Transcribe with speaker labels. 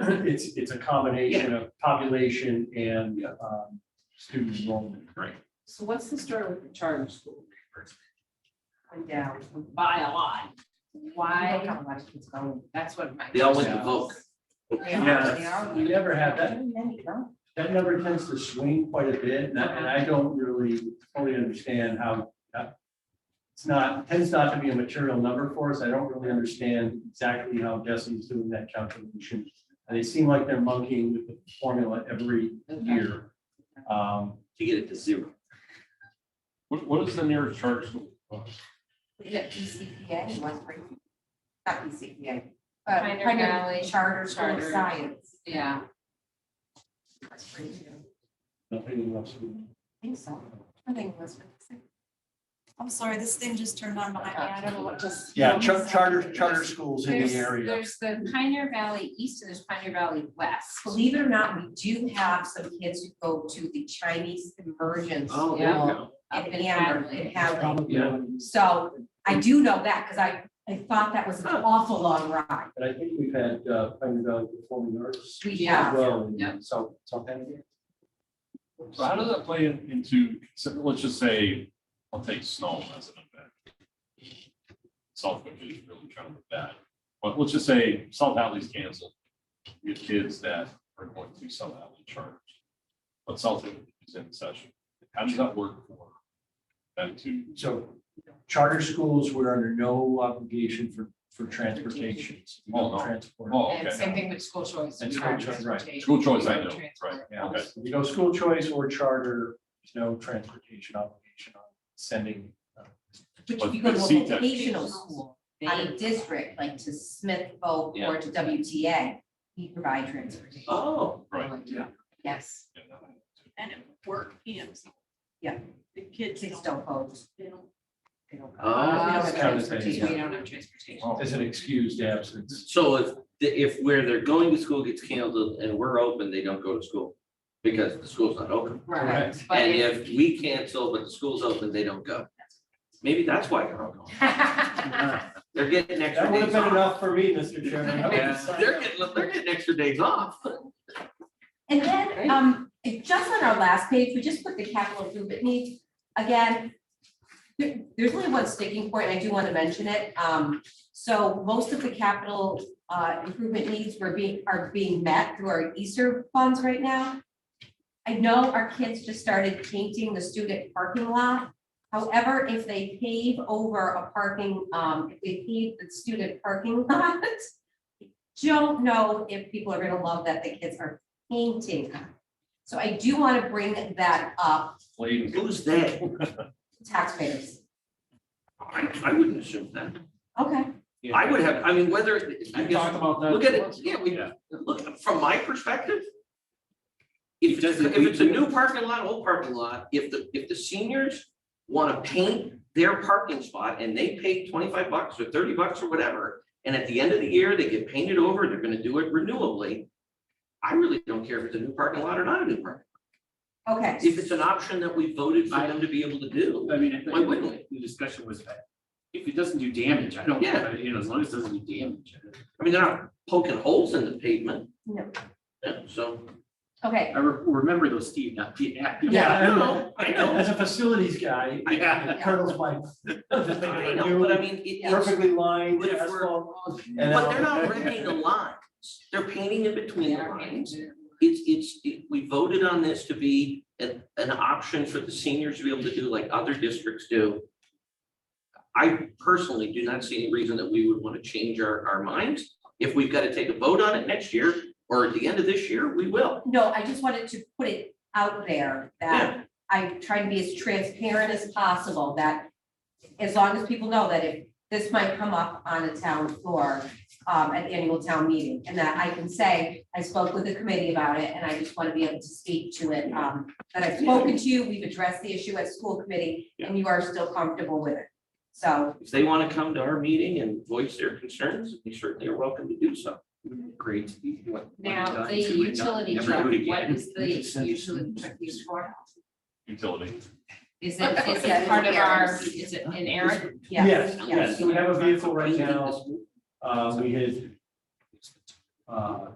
Speaker 1: it's, it's a combination of population and, um, student enrollment.
Speaker 2: So what's the story with the charter school? Went down by a lot. Why?
Speaker 3: a lot of kids going.
Speaker 2: That's what my.
Speaker 4: They all went to Volk.
Speaker 1: Yeah, we never had that, that number tends to swing quite a bit, and I, and I don't really fully understand how, uh, it's not, tends not to be a material number for us, I don't really understand exactly how Desi's doing that calculation. And they seem like they're monkeying with the formula every year. Um,
Speaker 4: to get it to zero.
Speaker 5: What, what is the nearest charter school? Oh,
Speaker 3: We got PCPA, one three, not PCPA. uh,
Speaker 2: Pioneer
Speaker 3: Pioneer
Speaker 2: Valley
Speaker 3: Charter School of
Speaker 2: Charter.
Speaker 3: Science.
Speaker 2: Yeah,
Speaker 3: That's pretty new.
Speaker 1: nothing else.
Speaker 3: I think so. I think that's.
Speaker 6: I'm sorry, this thing just turned on behind me. I don't know what just.
Speaker 1: Yeah, char- charter, charter schools in
Speaker 2: there's,
Speaker 1: the area.
Speaker 2: there's the Pioneer Valley East and there's Pioneer Valley West.
Speaker 3: Believe it or not, we do have some kids who go to the Chinese immersion
Speaker 4: Oh,
Speaker 3: school
Speaker 4: there
Speaker 2: yeah.
Speaker 4: we
Speaker 3: in
Speaker 4: go.
Speaker 2: Up in
Speaker 3: Amber, in
Speaker 2: Hadley.
Speaker 3: Hadley.
Speaker 1: Yeah,
Speaker 3: So I do know that because I, I thought that was an awful long ride.
Speaker 1: but I think we've had, uh, Pioneer Valley Performing Arts
Speaker 3: We
Speaker 1: as
Speaker 3: have.
Speaker 1: well,
Speaker 2: Yeah.
Speaker 1: in South, Southampton.
Speaker 5: So how does that play in- into, so let's just say, I'll take snow as an event. Southwick is really trying to look bad, but let's just say South Hadley's canceled. We have kids that are going to South Hadley charter. But South Hadley is in session. How does that work for them to?
Speaker 1: So charter schools, we're under no obligation for, for transportation.
Speaker 5: Oh, no.
Speaker 1: Transport.
Speaker 5: Oh,
Speaker 2: And
Speaker 5: okay.
Speaker 2: same thing with school choice.
Speaker 1: And
Speaker 2: and
Speaker 1: school choice, right.
Speaker 2: transportation.
Speaker 5: School choice, I know,
Speaker 2: Transport.
Speaker 5: right?
Speaker 1: Yeah,
Speaker 5: Okay.
Speaker 1: you know, school choice or charter, there's no transportation obligation on sending. uh,
Speaker 3: But
Speaker 5: But-
Speaker 3: if you go
Speaker 5: but
Speaker 3: to
Speaker 4: E
Speaker 3: a
Speaker 5: CTEC
Speaker 3: vocational
Speaker 5: is-
Speaker 3: school, out of district, like to Smithville or
Speaker 4: Yeah.
Speaker 3: to WTA, we provide transportation.
Speaker 4: Oh,
Speaker 5: Right, yeah.
Speaker 3: Yes,
Speaker 5: yeah, that-
Speaker 7: And it work PMs.
Speaker 3: Yeah.
Speaker 7: The kids
Speaker 3: kids
Speaker 7: don't,
Speaker 3: don't vote.
Speaker 7: they don't,
Speaker 3: They don't.
Speaker 4: Ah,
Speaker 2: Uh,
Speaker 3: We don't have
Speaker 1: kind of thing,
Speaker 2: We
Speaker 3: transportation.
Speaker 2: don't have transportation.
Speaker 5: Oh.
Speaker 1: As an excused absence.
Speaker 4: so if, the- if where they're going to school gets canceled and we're open, they don't go to school because the school's not open.
Speaker 2: Right. But
Speaker 4: And
Speaker 2: if-
Speaker 4: if we cancel, but the school's open, they don't go. Maybe that's why they're not going. They're getting
Speaker 1: That
Speaker 4: extra
Speaker 1: would have
Speaker 4: days
Speaker 1: been
Speaker 4: off.
Speaker 1: enough for me, Mr. Chairman. I would have
Speaker 4: Yeah,
Speaker 1: signed
Speaker 4: They're
Speaker 1: up.
Speaker 4: getting, they're getting extra days off.
Speaker 3: And then, um, just on our last page, we just put the capital improvement needs, again. there- there's only one sticking point, and I do want to mention it, um, so most of the capital, uh, improvement needs were being, are being met through our Easter funds right now. I know our kids just started painting the student parking lot, however, if they pave over a parking, um, if they pave the student parking lot. Don't know if people are gonna love that the kids are painting. So I do want to bring that up,
Speaker 5: Played.
Speaker 4: Who's that?
Speaker 3: taxpayers.
Speaker 4: I, I wouldn't assume that.
Speaker 3: Okay,
Speaker 4: I would have, I mean, whether, it- I
Speaker 1: We
Speaker 4: guess,
Speaker 1: talked about that.
Speaker 4: look at it, yeah, we,
Speaker 5: Yeah.
Speaker 4: look, from my perspective. If it's,
Speaker 8: doesn't-
Speaker 4: if it's a new parking lot, old parking lot, if the, if the seniors wanna paint their parking spot and they pay twenty-five bucks or thirty bucks or whatever. And at the end of the year, they get painted over, they're gonna do it renewably. I really don't care if it's a new parking lot or not a new parking,
Speaker 3: okay.
Speaker 4: if it's an option that we voted for them to be able to do.
Speaker 8: I mean, I think
Speaker 4: Why wouldn't we?
Speaker 8: the discussion was that if it doesn't do damage, I don't,
Speaker 4: Yeah.
Speaker 8: you know, as long as it doesn't do damage. I don't-
Speaker 4: I mean, they're not poking holes in the pavement.
Speaker 3: No.
Speaker 4: Yeah, so.
Speaker 3: Okay,
Speaker 8: I re- remember those, Steve, not Pete. not Pete.
Speaker 1: Yeah, I know,
Speaker 4: know, I know.
Speaker 1: as a facilities guy,
Speaker 8: Yeah.
Speaker 1: it curdles my.
Speaker 4: I know, but I mean, it- it's,
Speaker 1: Perfectly lined
Speaker 4: But if we're-
Speaker 1: asphalt. and
Speaker 4: but they're
Speaker 1: all-
Speaker 4: not wrecking the lines, they're painting in between
Speaker 2: They
Speaker 4: the
Speaker 2: are
Speaker 4: lines.
Speaker 2: getting-
Speaker 4: It's, it's, it- we voted on this to be an, an option for the seniors to be able to do like other districts do. I personally do not see any reason that we would want to change our, our minds. If we've got to take a vote on it next year or at the end of this year, we will.
Speaker 3: no, I just wanted to put it out there that I try to be as transparent as possible, that as long as people know that if this might come up on a town floor, um, at the annual town meeting, and that I can say, I spoke with the committee about it, and I just want to be able to speak to it, um, that I've spoken to you, we've addressed the issue at school committee, and you are still comfortable with it. So
Speaker 4: If they want to come to our meeting and voice their concerns, we certainly are welcome to do so.
Speaker 8: Great. What- what
Speaker 2: Now,
Speaker 8: done,
Speaker 2: the
Speaker 8: two and done,
Speaker 2: utility
Speaker 8: never
Speaker 2: truck,
Speaker 8: do it
Speaker 2: what
Speaker 8: again.
Speaker 2: is the usually truck used for?
Speaker 5: Utility.
Speaker 2: Is it, is
Speaker 3: Yeah,
Speaker 2: it part of our,
Speaker 3: Aaron's.
Speaker 2: is it an errant?
Speaker 1: Yes,
Speaker 3: Yes, yes.
Speaker 1: yes, Uh, we have a vehicle right
Speaker 4: Painted
Speaker 1: now,
Speaker 4: this-
Speaker 1: uh, we had. Uh,